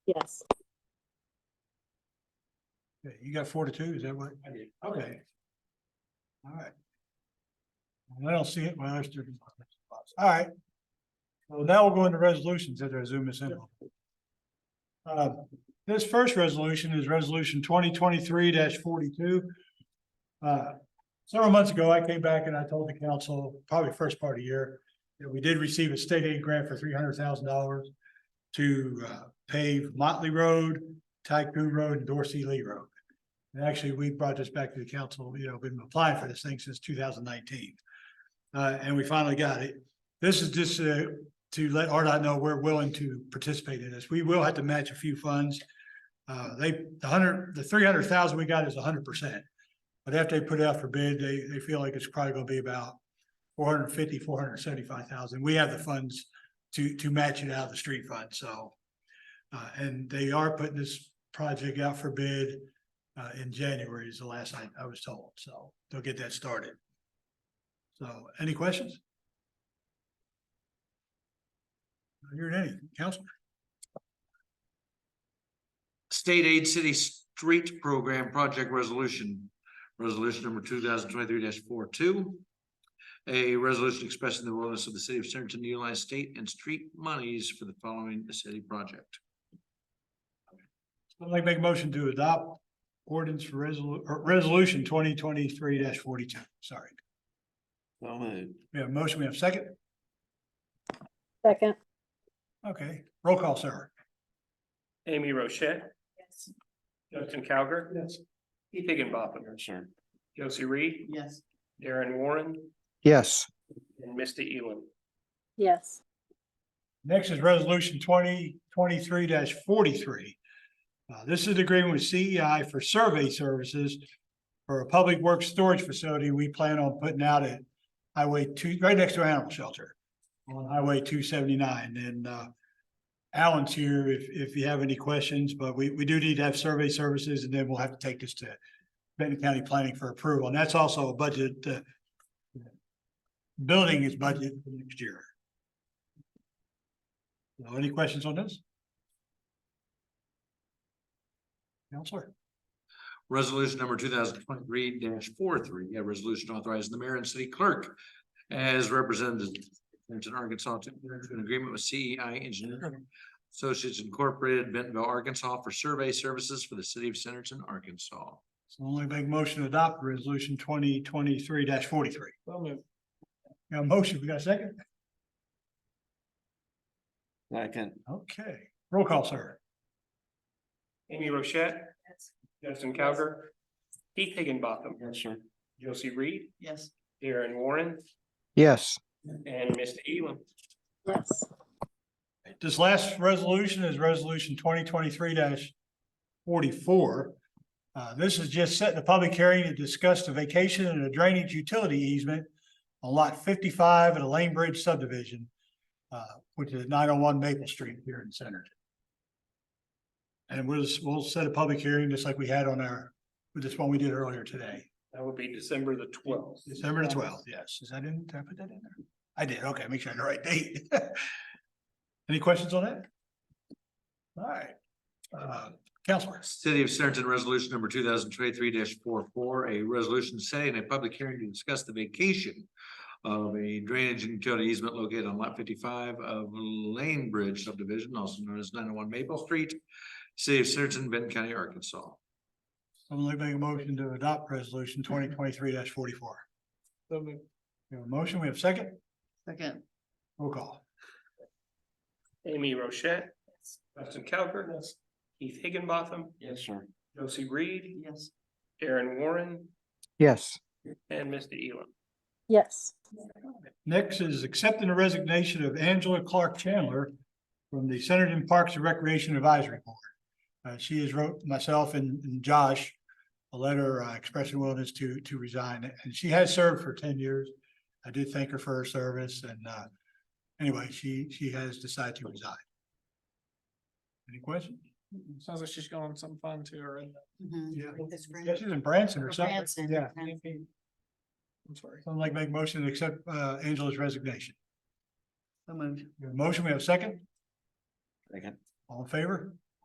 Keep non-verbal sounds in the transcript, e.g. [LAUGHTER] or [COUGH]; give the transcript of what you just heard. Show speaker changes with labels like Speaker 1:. Speaker 1: Yes.
Speaker 2: Yeah, You got four to two, is that what? I did. Okay. All right. I don't see it, my eyes are. All right. Well, now we'll go into resolutions as I zoom this in. Uh, this first resolution is resolution twenty twenty-three forty-two. Uh, several months ago, I came back and I told the council, probably first part of the year, that we did receive a state aid grant for three hundred thousand dollars to uh, pave Motley Road, Tycoon Road, and Dorsey Lee Road. And actually, we brought this back to the council, you know, been applying for this thing since two thousand nineteen. Uh, and we finally got it. This is just uh, to let RDOT know we're willing to participate in this. We will have to match a few funds. Uh, they, the hundred, the three hundred thousand we got is hundred percent. But after they put it out for bid, they, they feel like it's probably gonna be about 450, 475,000. We have the funds to, to match it out of the street fund, so. Uh, and they are putting this project out for bid, uh, in January is the last I, I was told, so they'll get that started. So, any questions? Not Hearing any, Council?
Speaker 3: State Aid City Street Program Project Resolution, Resolution number two thousand twenty-three 42 A resolution expressing the willingness of the city of Centerton to utilize state and street monies for the following city project.
Speaker 2: I'd like to make a motion to adopt ordinance for resolu- or resolution twenty twenty-three forty-two, sorry.
Speaker 4: So moved.
Speaker 2: We have a motion, we have a second?
Speaker 1: Second.
Speaker 2: Okay, roll call, sir.
Speaker 5: Amy Rochette,
Speaker 1: Yes.
Speaker 5: Justin Cowger,
Speaker 2: Yes.
Speaker 5: Keith Higginbotham,
Speaker 4: Sure.
Speaker 5: Josie Reed,
Speaker 6: yes,
Speaker 5: Darren Warren,
Speaker 7: yes,
Speaker 5: and Misty Ewen.
Speaker 1: Yes.
Speaker 2: Next is resolution twenty twenty-three forty-three. Uh, this is the agreement with CEI for survey services for a public works storage facility we plan on putting out at Highway two, right next to an animal shelter on Highway two seventy-nine and, uh, Alan's here if, if you have any questions, but we, we do need to have survey services and then we'll have to take this to Benton County Planning for approval. And that's also a budget, uh, building is budget for next year. Now, Any questions on this? Counselor,
Speaker 3: Resolution number two thousand twenty-three 43 a resolution authorizing the mayor and city clerk as represented in Arkansas to enter into an agreement with CEI Engineering Associates Incorporated, Bentonville, Arkansas, for survey services for the city of Centerton, Arkansas.
Speaker 2: so only make motion to adopt resolution twenty twenty-three forty-three. Got a motion, we got a second?
Speaker 4: Second,
Speaker 2: Okay, roll call, sir.
Speaker 5: Amy Rochette, Justin Cowger, Keith Higginbotham,
Speaker 4: yes, sir.
Speaker 5: Josie Reed,
Speaker 6: yes,
Speaker 5: Darren Warren,
Speaker 7: yes,
Speaker 5: and Misty Ewen.
Speaker 1: Yes.
Speaker 2: This last resolution is resolution twenty twenty-three forty-four. Uh, this is just setting a public hearing to discuss the vacation and a drainage utility easement on lot fifty-five at a Lane Bridge subdivision, uh, which is nine oh one Maple Street here in Centerton. And we'll, just- we'll set a public hearing just like we had on our, with this one we did earlier today,
Speaker 5: That would be December the twelfth.
Speaker 2: December the twelfth, yes. Is that in, did I put that in there? I did, okay, make sure I had the right date. [LAUGHS] Any questions on that? All right. Uh, Counselor,
Speaker 3: City of Centerton Resolution Number two thousand twenty-three 44 a resolution setting a public hearing to discuss the vacation of a drainage and utility easement located on lot fifty-five of Lane Bridge subdivision, also known as nine oh one Maple Street, City of Centerton, Benton County, Arkansas.
Speaker 2: I'm gonna make a motion to adopt resolution twenty twenty-three forty-four. We have a motion, we have a second,
Speaker 6: second,
Speaker 2: roll call.
Speaker 5: Amy Rochette, Justin Cowger, Keith Higginbotham,
Speaker 4: Yes, sir.
Speaker 5: Josie Reed,
Speaker 6: yes,
Speaker 5: Darren Warren,
Speaker 7: yes,
Speaker 5: and Misty Ewen.
Speaker 1: Yes.
Speaker 2: Next is accepting the resignation of Angela Clark Chandler from the Centerton Parks and Recreation Advisory Board. Uh, she has wrote myself and and Josh a letter uh, expressing willingness to, to resign, and she has served for ten years. I did thank her for her service, and, uh, anyway, she, she has decided to resign. Any questions?
Speaker 8: Sounds like she's going some fun too, or in-
Speaker 6: mhm,
Speaker 2: Yeah,
Speaker 6: This brand-
Speaker 2: Yeah, she's in Branson or something.
Speaker 6: Branson,
Speaker 2: Yeah,
Speaker 6: okay.
Speaker 8: I'm sorry.
Speaker 2: I'd like to make a motion to accept, uh, Angela's resignation.
Speaker 6: so moved,
Speaker 2: We have a Motion, we have a second?
Speaker 4: Second,
Speaker 2: All in favor?